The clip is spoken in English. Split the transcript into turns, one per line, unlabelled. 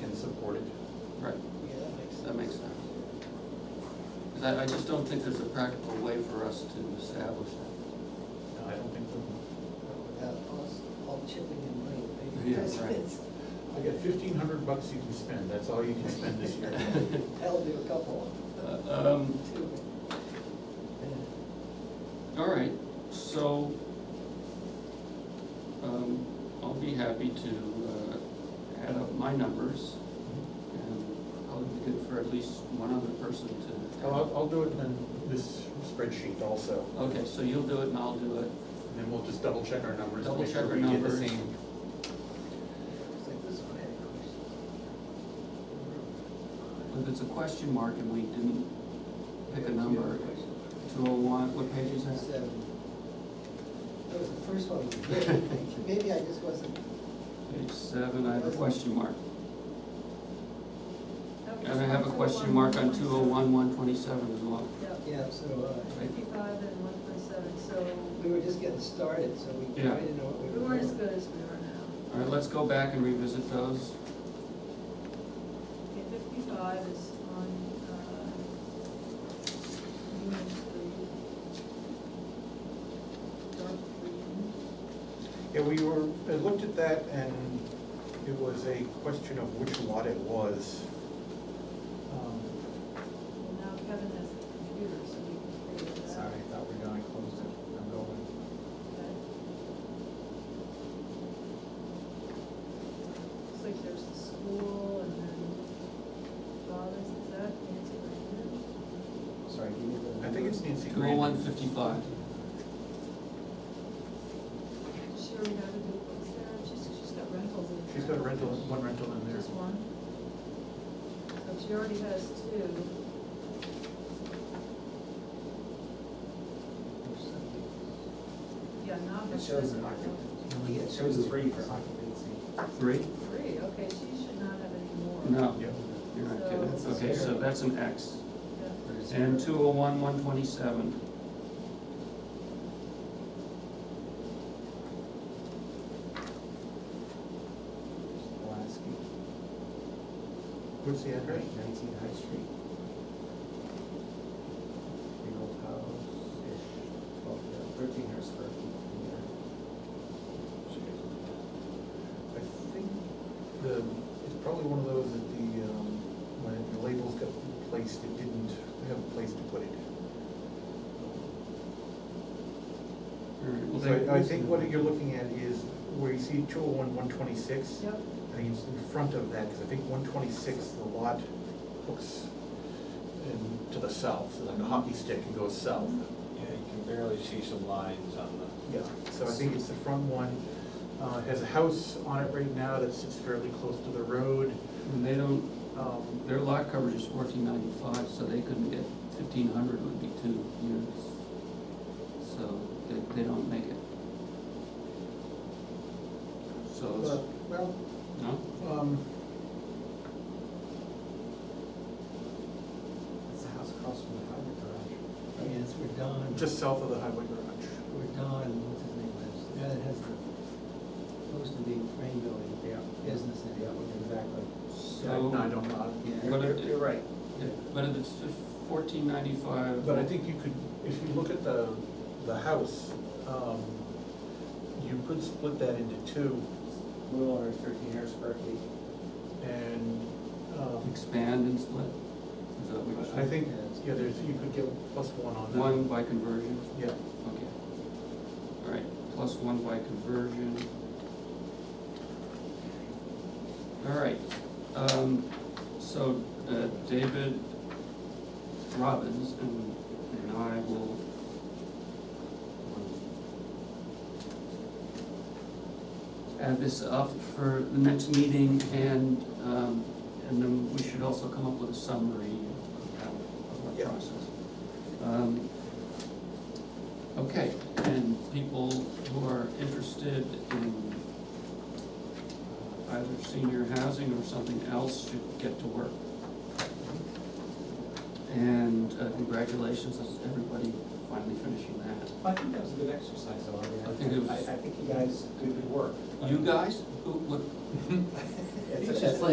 can support it.
Right,
Yeah, that makes sense.
that makes sense. Because I, I just don't think there's a practical way for us to establish that.
No, I don't think so.
Without us all chipping in money, maybe.
Yeah,
that's
right.
it.
I got fifteen hundred bucks you can spend, that's all you can spend this year.
That'll do a couple,
Uh, Um,
two.
all right, so, um, I'll be happy to, uh, add up my numbers and probably be good for at least one other person to.
I'll, I'll do it in this spreadsheet also,
Okay, so you'll do it and I'll do it.
and then we'll just double check our numbers.
Double
make sure
check our
we get the
numbers.
same.
It's like this one had
If
questions.
it's a question mark and we didn't pick a number, two oh one, what page is that?
Seven. That was the first one. we did. Maybe I just wasn't.
Page seven, I have a question mark. And I have a question mark on two oh one, one twenty-seven as well.
Yeah,
Yeah, so, uh,
fifty-five and one twenty-seven, so
we were just getting started, so we
Yeah.
I didn't know what we were.
we weren't as
doing.
good as we are now.
All right, let's go back and revisit those.
Okay, fifty-five is on, uh, unit three. Dark green.
Yeah, we were, I looked at that and it was a question of which lot it was. Um,
Well, now Kevin has the computer, so we can figure it out.
Sorry, I thought we were gonna close it, I'm going.
Okay. Looks like there's the school and then father's, is that Nancy Brandon?
Sorry, give me the. I think it's Nancy
Two oh
Green.
one, fifty-five.
She already got a new place there, she's, she's got rentals in there.
She's got a rental, one rental in there.
Just one? So she already has two. Yeah, now
It
that's.
shows an occupancy. It shows three for occupancy.
Three?
Three, okay, she should not have any more.
No,
Yep.
you're not
So it's
kidding. Okay, so
zero.
that's an X.
Yeah.
or zero.
And two oh one, one twenty-seven.
Pulaski,
What's the address?
right, nineteen High Street. Big old house-ish, twelve, thirteen hundred square feet.
I think the, it's probably one of those that the, um, when the labels got placed, it didn't have a place to put it.
All right, well,
So
there-
I I think what you're looking at is where you see two oh one, one twenty-six.
Yep,
I think it's in front of that, because I think one twenty-six, the lot hooks in to the south, so like a hockey stick and goes south.
Yeah, you can barely see some lines on the.
Yeah, so I think it's the front one, uh, it has a house on it right now that sits fairly close to the road.
And they don't,
Um,
their lot coverage is fourteen ninety-five, so they couldn't get fifteen hundred would be two units. So they, they don't make it. So
but,
it's,
Well,
no?
um,
That's the house across from the highway garage.
I mean, it's where Don,
just south of the highway garage.
where Don, what's his name, lives. The guy that has the, supposed to be frame building business in it.
Exactly.
Yeah,
So.
No, I don't know.
Yeah.
But
You're,
it-
you're right.
Yeah, But if it's fourteen ninety-five.
But I think you could, if you look at the, the house, um, you could split that into two
A little under thirteen hundred square feet.
and, um,
Expand and split? Is that what you're saying?
I think, yeah, there's, you could get plus one on that.
One by conversion,
Yeah,
okay. All right, plus one by conversion. All right, um, so, uh, David Robbins and, and I will. um, Add this up for the next meeting and, um, and then we should also come up with a summary of how, of our
Yeah.
process. Um, Okay, and people who are interested in uh, either senior housing or something else should get to work. And uh, congratulations, on everybody finally finishing that.
I think that was a good exercise, though. I mean,
I think it was-
I, I think you guys did good work.
You guys, who, what,
It's
It's
just like-